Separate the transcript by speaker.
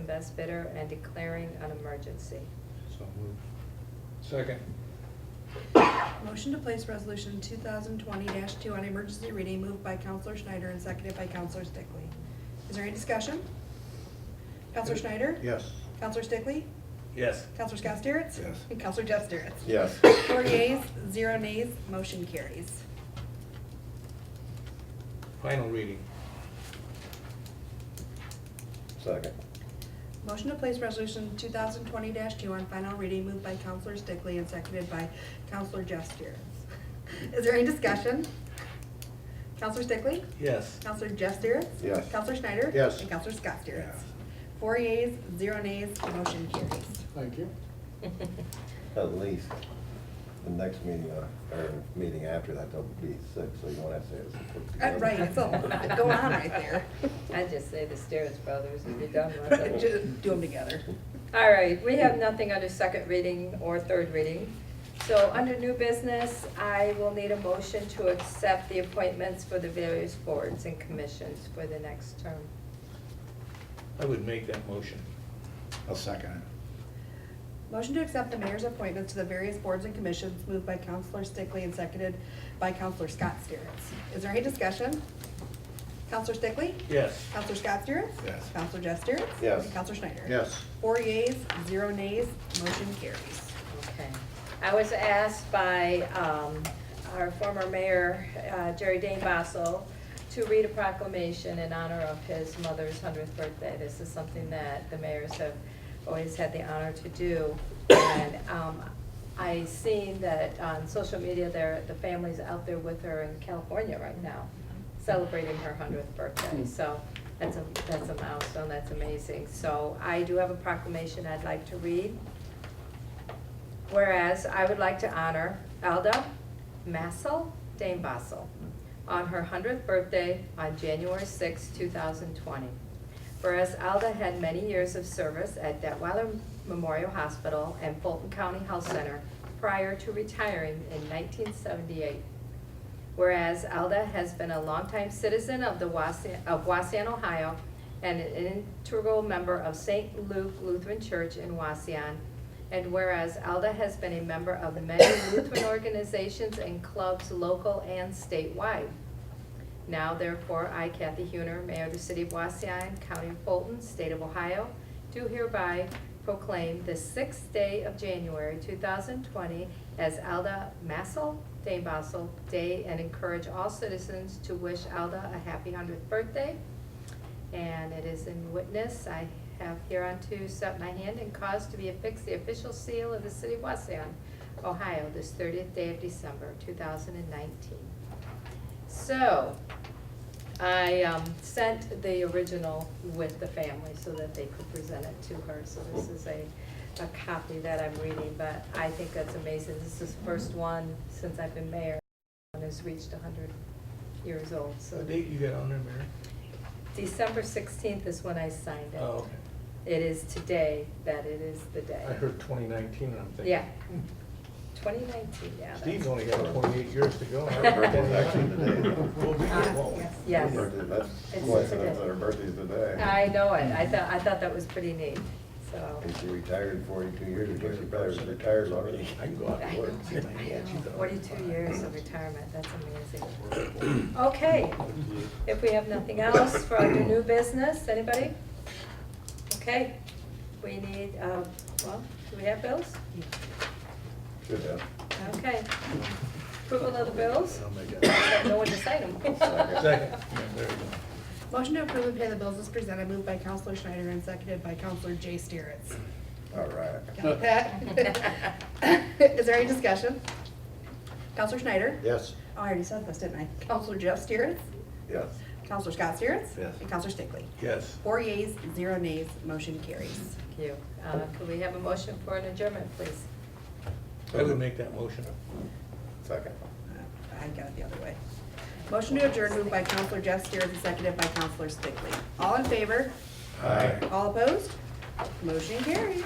Speaker 1: best bidder and declaring an emergency.
Speaker 2: So moved. Second.
Speaker 3: Motion to place resolution two thousand twenty two on emergency reading moved by Counselor Schneider and seconded by Counselor Stickley. Is there any discussion? Counselor Schneider?
Speaker 2: Yes.
Speaker 3: Counselor Stickley?
Speaker 4: Yes.
Speaker 3: Counselor Scott Stieretz?
Speaker 2: Yes.
Speaker 3: And Counselor Jeff Stieretz?
Speaker 5: Yes.
Speaker 3: Four yeas, zero nays, motion carries.
Speaker 2: Final reading.
Speaker 5: Second.
Speaker 3: Motion to place resolution two thousand twenty two on final reading moved by Counselor Stickley and seconded by Counselor Jeff Stieretz. Is there any discussion? Counselor Stickley?
Speaker 4: Yes.
Speaker 3: Counselor Jeff Stieretz?
Speaker 5: Yes.
Speaker 3: Counselor Schneider?
Speaker 5: Yes.
Speaker 3: And Counselor Scott Stieretz.
Speaker 2: Yes.
Speaker 3: Four yeas, zero nays, motion carries.
Speaker 6: Thank you.
Speaker 5: At least, the next meeting, uh, or meeting after that, they'll be six, so you won't have to say it's.
Speaker 3: Uh, Right, it's all going on right there.
Speaker 1: I just say the Stearns Brothers and you're done with
Speaker 3: Right,
Speaker 1: it.
Speaker 3: just Do them together.
Speaker 1: All right, we have nothing under second reading or third reading. So under new business, I will need a motion to accept the appointments for the various boards and commissions for the next term.
Speaker 2: I would make that motion.
Speaker 6: I'll second
Speaker 3: Motion to accept the mayor's appointments to the various boards and commissions moved by Counselor Stickley and seconded by Counselor Scott Stieretz. Is there any discussion? Counselor Stickley?
Speaker 2: Yes.
Speaker 3: Counselor Scott Stieretz?
Speaker 6: Yes.
Speaker 3: Counselor Jeff Stieretz?
Speaker 5: Yes.
Speaker 3: And Counselor Schneider?
Speaker 6: it. Yes.
Speaker 3: Four yeas, zero nays, motion carries.
Speaker 1: Okay. I was asked by um, our former mayor, uh, Jerry Dane Basso, to read a proclamation in honor of his mother's 100th birthday. This is something that the mayors have always had the honor to do. And um, I seen that on social media, there, the family's out there with her in California right now, celebrating her 100th birthday. So that's a, that's a milestone, that's amazing. So I do have a proclamation I'd like to read. Whereas I would like to honor Alda Massel Dame Bassel on her 100th birthday on January 6, 2020. Whereas Alda had many years of service at Detweiler Memorial Hospital and Fulton County Health Center prior to retiring in 1978. Whereas Alda has been a longtime citizen of the Wasean, of Wasean, Ohio, and an integral member of St. Luke Lutheran Church in Wasean. And whereas Alda has been a member of the many Lutheran organizations and clubs, local and statewide. Now therefore, I, Kathy Huner, Mayor of the City of Waseon, County of Fulton, State of Ohio, do hereby proclaim the sixth day of January, two thousand twenty, as Alda Massel, Dame Basel Day, and encourage all citizens to wish Alda a happy hundredth birthday. And it is in witness, I have hereunto set my hand and caused to be affixed the official seal of the City of Waseon, Ohio, this thirtieth day of December, two thousand and nineteen. So, I um, sent the original with the family so that they could present it to her. So this is a, a copy that I'm reading, but I think that's amazing. This is the first one since I've been mayor and has reached hundred years old, so.
Speaker 2: What date you got on there, Mary?
Speaker 1: December sixteenth is when I signed it.
Speaker 2: Oh, okay.
Speaker 1: It is today that it is the day.
Speaker 2: I heard twenty nineteen, and I'm thinking. Hmm.
Speaker 1: Yeah. Twenty nineteen, yeah. that's-
Speaker 2: Steve's only got twenty-eight years to go.
Speaker 1: Her birthday's
Speaker 5: actually today.
Speaker 2: We'll be here, won't we?
Speaker 3: Yes,
Speaker 1: Yes.
Speaker 5: That's
Speaker 1: It's
Speaker 5: coincidence
Speaker 1: today.
Speaker 5: that her birthday's today.
Speaker 1: I know it. I thought, I thought that was pretty neat, so.
Speaker 5: And she retired forty-two years ago, she probably was retired already.
Speaker 2: I can go out
Speaker 1: I
Speaker 2: and
Speaker 1: know,
Speaker 2: work.
Speaker 1: I know. Forty-two years of retirement, that's amazing. Okay, if we have nothing else for under new business, anybody? Okay, we need, uh, well, do we have bills?
Speaker 5: Should have.
Speaker 1: Okay. Approval of the bills?
Speaker 2: I'll make
Speaker 1: Don't know when to sign them.
Speaker 2: Second. Yeah, there you go.
Speaker 3: Motion to approve and pay the bills is presented, moved by Counselor Schneider and seconded by Counselor Jay Stieretz.
Speaker 5: All right.
Speaker 3: Got that? Is there any discussion? Counselor Schneider?
Speaker 5: Yes.
Speaker 3: Oh, I already said this, didn't I? Counselor Jeff Stieretz,
Speaker 5: Yes.
Speaker 3: Counselor Scott Stieretz?
Speaker 5: Yes.
Speaker 3: And Counselor Stickley.
Speaker 2: Yes.
Speaker 3: Four yeas, zero nays, motion carries.
Speaker 1: Thank you. Uh, could we have a motion for an adjournment, please?
Speaker 2: I would make that motion.
Speaker 5: Second.
Speaker 3: Uh, I got it the other way. Motion to adjourn moved by Counselor Jeff Stieretz and seconded by Counselor Stickley. All in favor?
Speaker 5: Aye.
Speaker 3: All opposed? Motion carries.